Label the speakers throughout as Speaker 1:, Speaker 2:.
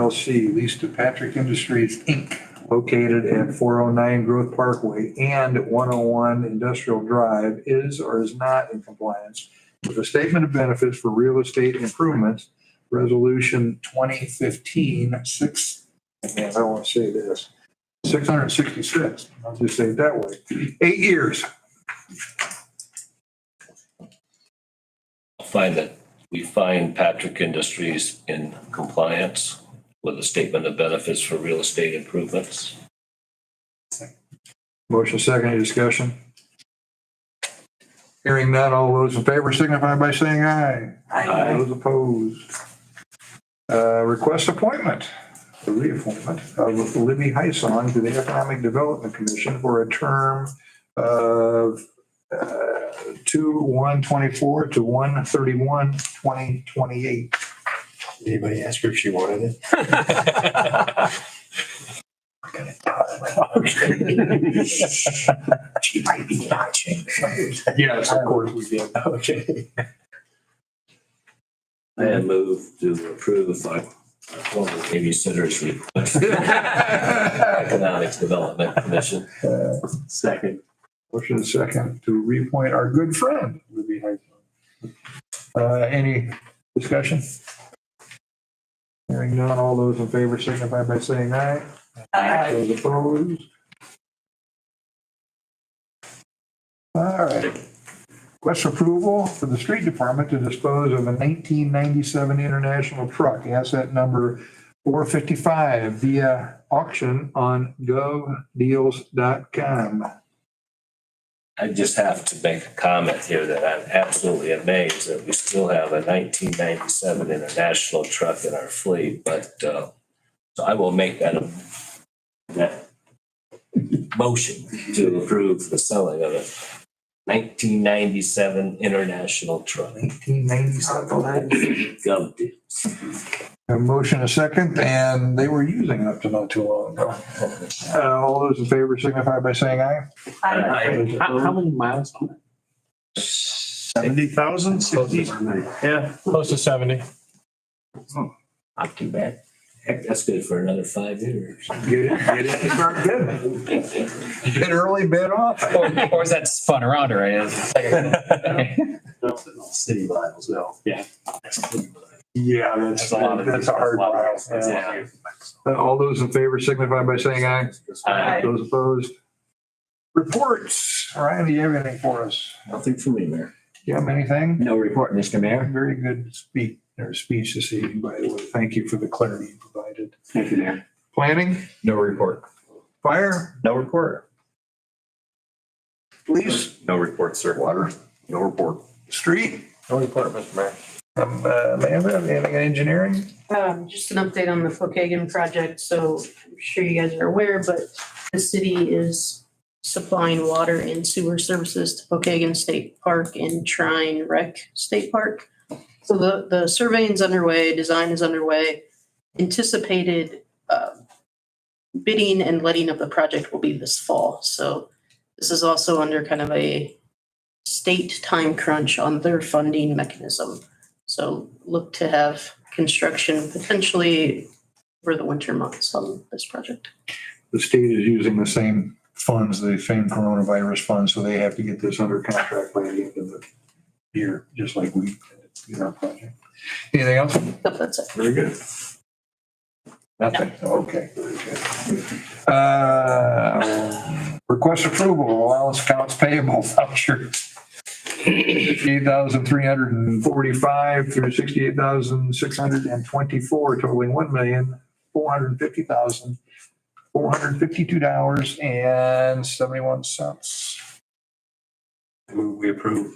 Speaker 1: LLC leased to Patrick Industries, Inc., located at 409 Growth Parkway and 101 Industrial Drive is or is not in compliance with the Statement of Benefits for Real Estate Improvements, Resolution 2015-6, man, I don't want to say this, 666, I'll just say it that way, eight years.
Speaker 2: I'll find that we find Patrick Industries in compliance with the statement of benefits for real estate improvements.
Speaker 1: Motion second, any discussion? Hearing none, all those in favor signify by saying aye.
Speaker 2: Aye.
Speaker 1: Those opposed. Uh, Request appointment, the reappointment of Libby Heisong to the Economic Development Commission for a term of uh, 2/1/24 to 1/31/2028.
Speaker 3: Anybody ask her if she wanted it? She might be watching.
Speaker 1: Yes, of course we did.
Speaker 3: Okay.
Speaker 2: I have moved to approve my my former babysitter's request. Economic Development Commission.
Speaker 3: Second.
Speaker 1: Motion is second to reappoint our good friend, Libby Heisler. Uh, any discussion? Hearing none, all those in favor signify by saying aye. Aye. Those opposed? All right. Request approval for the street department to dispose of a nineteen ninety-seven International truck, asset number four fifty-five via auction on govdeals.com.
Speaker 2: I just have to make a comment here that I'm absolutely amazed that we still have a nineteen ninety-seven International truck in our fleet, but, uh, so I will make that, a- that motion to approve the selling of a nineteen ninety-seven International truck.
Speaker 1: 1997.
Speaker 2: Gov deals.
Speaker 1: A motion a second, and they were using it up to not too long ago. Uh, All those in favor signify by saying aye.
Speaker 2: I-
Speaker 4: How, how many miles on it?
Speaker 3: Seventy thousand, sixty?
Speaker 4: Yeah, close to seventy.
Speaker 2: Not too bad. Heck, that's good for another five years.
Speaker 1: Get it, get it, start bidding. Bid early, bid often.
Speaker 5: or, or is that spun around already? It's like-
Speaker 3: City miles, no.
Speaker 1: Yeah, that's, that's a hard mile. Yeah. Uh, All those in favor signify by saying aye.
Speaker 2: Aye.
Speaker 1: Those opposed? Reports. Ryan, do you have anything for us?
Speaker 6: Nothing for me, Mayor.
Speaker 1: Do you have anything?
Speaker 6: No report, Mr. Mayor.
Speaker 1: Very good speak, or speech this evening, by the way. Thank you for the clarity you provided.
Speaker 6: Thank you, Mayor.
Speaker 1: Planning,
Speaker 6: No report.
Speaker 1: fire,
Speaker 6: No report.
Speaker 1: police,
Speaker 6: No report, sir.
Speaker 1: water,
Speaker 6: No report.
Speaker 1: street.
Speaker 6: No report, Mr. Mayor.
Speaker 1: Um, uh, Amanda, anything in engineering?
Speaker 7: Um, just an update on the Pokagon project. So I'm sure you guys are aware, but the city is supplying water and sewer services to Pokagon State Park and Trine Rec State Park. So the, the surveying's underway, design is underway. Anticipated, uh, bidding and letting of the project will be this fall. So this is also under kind of a state time crunch on their funding mechanism. So look to have construction potentially for the winter months on this project.
Speaker 1: The state is using the same funds, the same coronavirus funds, so they have to get this under contract by the end of the year, just like we did in our project. Anything else?
Speaker 7: Hope that's it.
Speaker 1: Very good. Nothing, okay. very good. Uh, Request approval, allowance accounts payable voucher. Eight thousand three hundred and forty-five through sixty-eight thousand six hundred and twenty-four totaling one million four hundred and fifty thousand four hundred and fifty-two dollars and seventy-one cents.
Speaker 3: We approve.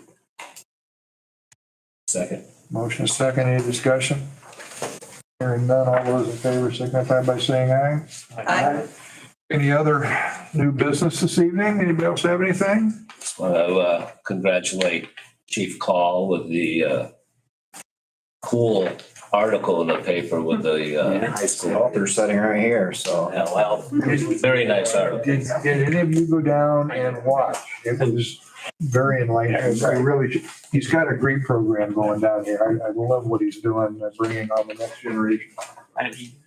Speaker 2: Second.
Speaker 1: Motion is second, any discussion? Hearing none, all those in favor signify by saying aye. Aye. Any other new business this evening? Anybody else have anything?
Speaker 2: Just want to uh, congratulate Chief Call with the uh, cool article in the paper with the uh, high school.
Speaker 6: Author sitting right here, so.
Speaker 2: Yeah, well, very nice article.
Speaker 1: Did, did any of you go down and watch? It was very enlightening. I really, should- he's got a great program going down here. I, I love what he's doing, uh, bringing on the next generation.
Speaker 4: And he